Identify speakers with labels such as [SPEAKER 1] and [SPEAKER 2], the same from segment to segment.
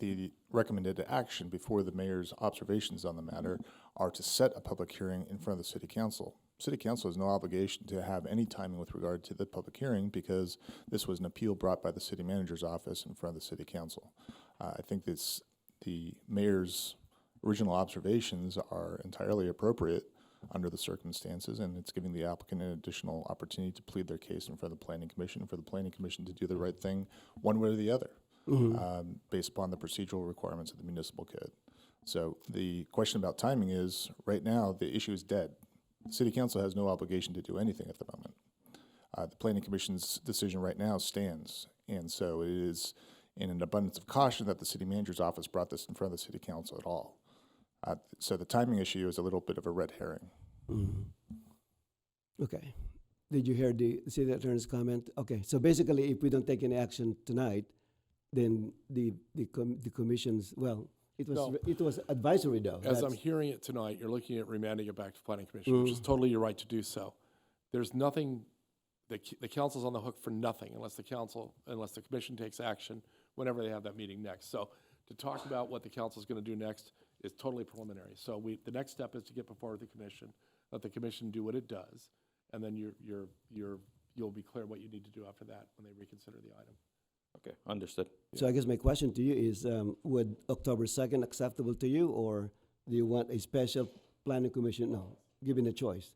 [SPEAKER 1] the recommended action before the mayor's observations on the matter are to set a public hearing in front of the city council. City council has no obligation to have any timing with regard to the public hearing because this was an appeal brought by the city manager's office in front of the city council. Uh, I think this, the mayor's original observations are entirely appropriate under the circumstances, and it's giving the applicant an additional opportunity to plead their case in front of the planning commission, for the planning commission to do the right thing, one way or the other, um, based upon the procedural requirements of the municipal code. So the question about timing is, right now, the issue is dead. City council has no obligation to do anything at the moment. Uh, the planning commission's decision right now stands, and so it is in an abundance of caution that the city manager's office brought this in front of the city council at all. Uh, so the timing issue is a little bit of a red herring.
[SPEAKER 2] Mm. Mm-hmm. Okay. Did you hear the city attorney's comment? Okay, so basically, if we don't take any action tonight, then the, the com- the commission's, well, it was,
[SPEAKER 3] No.
[SPEAKER 2] re- it was advisory though.
[SPEAKER 3] As I'm
[SPEAKER 2] That's-
[SPEAKER 3] hearing it tonight, you're looking at remanding it back to planning commission, which is totally your right to do so. There's nothing, the, c- the council's on the hook for nothing unless the council, unless the commission takes action whenever they have that meeting next. So to talk about what the council's gonna do next is totally preliminary. So we, the next step is to get before the commission, let the commission do what it does, and then you're, you're, you're, you'll be clear what you need to do after that when they reconsider the item.
[SPEAKER 4] Okay, understood.
[SPEAKER 2] So I guess my question to you is, um, would October second acceptable to you, or do you want a special planning commission? No, given a choice.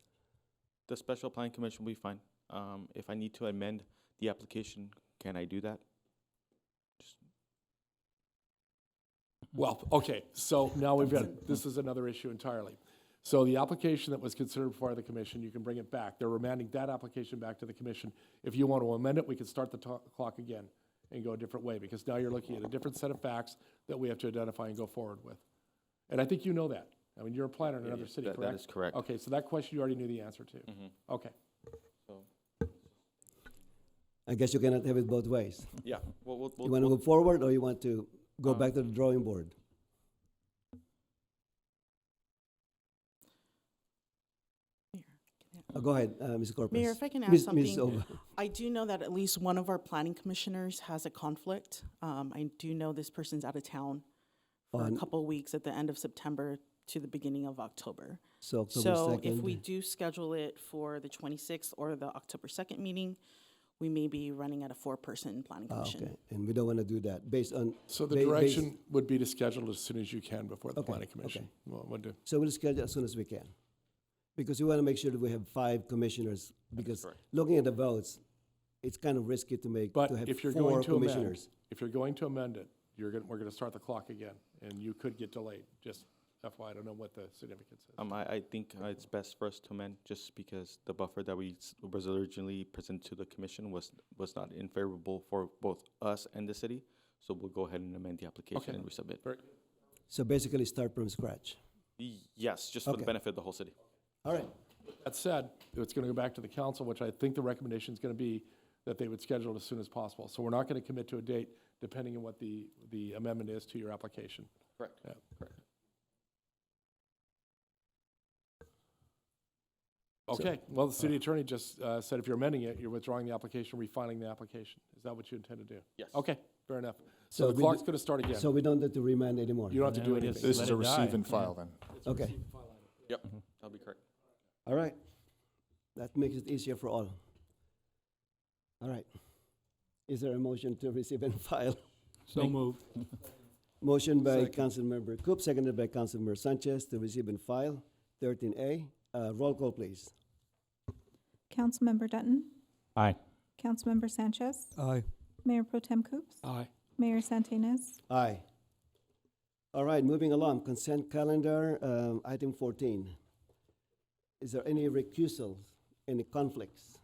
[SPEAKER 4] The special plan commission will be fine. Um, if I need to amend the application, can I do that?
[SPEAKER 3] Well, okay, so now we've got, this is another issue entirely. So the application that was considered before the commission, you can bring it back. They're remanding that application back to the commission. If you want to amend it, we can start the to- clock again and go a different way, because now you're looking at a different set of facts that we have to identify and go forward with. And I think you know that. I mean, you're a planner in another city,
[SPEAKER 4] That-
[SPEAKER 3] correct?
[SPEAKER 4] That is correct.
[SPEAKER 3] Okay, so that question you already knew the answer to.
[SPEAKER 4] Mhm.
[SPEAKER 3] Okay,
[SPEAKER 4] So,
[SPEAKER 2] I guess you cannot have it both ways.
[SPEAKER 4] yeah, we'll, we'll,
[SPEAKER 2] You
[SPEAKER 4] we'll-
[SPEAKER 2] want to
[SPEAKER 4] we'll-
[SPEAKER 2] go forward, or you want to go
[SPEAKER 4] Uh,
[SPEAKER 2] back to the drawing board? Uh, Go ahead, uh, Ms. Corpus.
[SPEAKER 5] Mayor, if I can ask
[SPEAKER 2] Ms.
[SPEAKER 5] something.
[SPEAKER 2] Ms. Ova.
[SPEAKER 5] I do know that at least one of our planning commissioners has a conflict. Um, I do know this person's out of town for a
[SPEAKER 2] On-
[SPEAKER 5] couple weeks at the end of September to the beginning of October.
[SPEAKER 2] So October
[SPEAKER 5] So if we
[SPEAKER 2] second,
[SPEAKER 5] do schedule it for the 26th or the October 2nd meeting, we may be running at a four-person planning
[SPEAKER 2] Ah,
[SPEAKER 5] commission.
[SPEAKER 2] okay, and we don't want to do that, based on.
[SPEAKER 3] so
[SPEAKER 2] ba-
[SPEAKER 3] the
[SPEAKER 2] based-
[SPEAKER 3] direction would be to schedule as soon as you can before the
[SPEAKER 2] Okay,
[SPEAKER 3] planning commission.
[SPEAKER 2] okay.
[SPEAKER 3] Well, what do-
[SPEAKER 2] So we'll schedule as soon as we can, because we want to make sure that we have five commissioners, because
[SPEAKER 4] correct.
[SPEAKER 2] looking at the votes, it's kind of risky to make,
[SPEAKER 3] But
[SPEAKER 2] to have
[SPEAKER 3] if you're
[SPEAKER 2] four
[SPEAKER 3] going to amend,
[SPEAKER 2] commissioners.
[SPEAKER 3] if you're going to amend it, you're going, we're going to start the clock again, and you could get delayed, just FYI, I don't know what the significance is.
[SPEAKER 4] um, I, I think uh, it's best for us to amend just because the buffer that we s- was originally presented to the commission was, was not in favorable for both us and the city. So we'll go ahead and amend the application
[SPEAKER 3] Okay.
[SPEAKER 4] and resubmit.
[SPEAKER 3] Very-
[SPEAKER 2] So basically, start from scratch.
[SPEAKER 4] Y- Yes, just for the
[SPEAKER 2] Okay.
[SPEAKER 4] benefit of the whole city.
[SPEAKER 2] All right,
[SPEAKER 3] That said, it's going to go back to the council, which I think the recommendation is going to be that they would schedule it as soon as possible. So we're not going to commit to a date depending on what the, the amendment is to your application.
[SPEAKER 4] Correct.
[SPEAKER 3] Yeah.
[SPEAKER 4] Correct.
[SPEAKER 3] Okay, well, the city attorney just uh, said if you're amending it, you're withdrawing the application, refiling the application. Is that what you intend to do?
[SPEAKER 4] Yes.
[SPEAKER 3] Okay, fair enough.
[SPEAKER 2] So
[SPEAKER 3] So the
[SPEAKER 2] we
[SPEAKER 3] clock's
[SPEAKER 2] do-
[SPEAKER 3] going to start again.
[SPEAKER 2] so we don't have to remand anymore.
[SPEAKER 3] You don't have to
[SPEAKER 6] Yeah,
[SPEAKER 3] do
[SPEAKER 6] we
[SPEAKER 3] anything.
[SPEAKER 6] just
[SPEAKER 1] This
[SPEAKER 6] let
[SPEAKER 1] is
[SPEAKER 6] it
[SPEAKER 1] a receive
[SPEAKER 6] die,
[SPEAKER 1] and
[SPEAKER 6] yeah.
[SPEAKER 1] file then.
[SPEAKER 2] Okay,
[SPEAKER 4] Yep, that'll be correct.
[SPEAKER 2] all right. That makes it easier for all. All right. Is there a motion to receive and file?
[SPEAKER 6] So moved.
[SPEAKER 2] Motion by
[SPEAKER 6] Second.
[SPEAKER 2] Councilmember Coop, seconded by Councilmember Sanchez to receive and file. Thirteen A, uh, roll call, please.
[SPEAKER 7] Councilmember Dutton.
[SPEAKER 6] Aye.
[SPEAKER 7] Councilmember Sanchez.
[SPEAKER 6] Aye.
[SPEAKER 7] Mayor Pro Tem Coops.
[SPEAKER 3] Aye.
[SPEAKER 7] Mayor Santinez.
[SPEAKER 2] Aye. All right, moving along, consent calendar, um, item fourteen. Is there any recusals, any conflicts?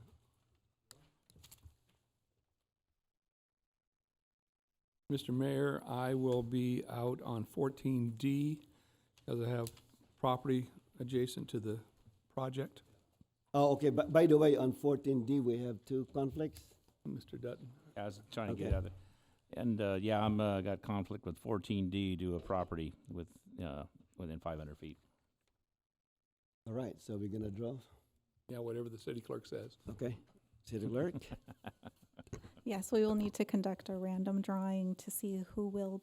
[SPEAKER 6] Mr. Mayor, I will be out on fourteen D, as I have property adjacent to the project.
[SPEAKER 2] Oh, okay, but by the way, on fourteen D, we have two conflicts.
[SPEAKER 6] Mr. Dutton,
[SPEAKER 8] I was trying to
[SPEAKER 2] Okay.
[SPEAKER 8] get out of it. And, uh, yeah, I'm, uh, got conflict with fourteen D due a property with, uh, within five hundred feet.
[SPEAKER 2] All right, so we're gonna draw,
[SPEAKER 6] yeah, whatever the city clerk says.
[SPEAKER 2] okay? City clerk?
[SPEAKER 7] Yes, we will need to conduct a random drawing to see who will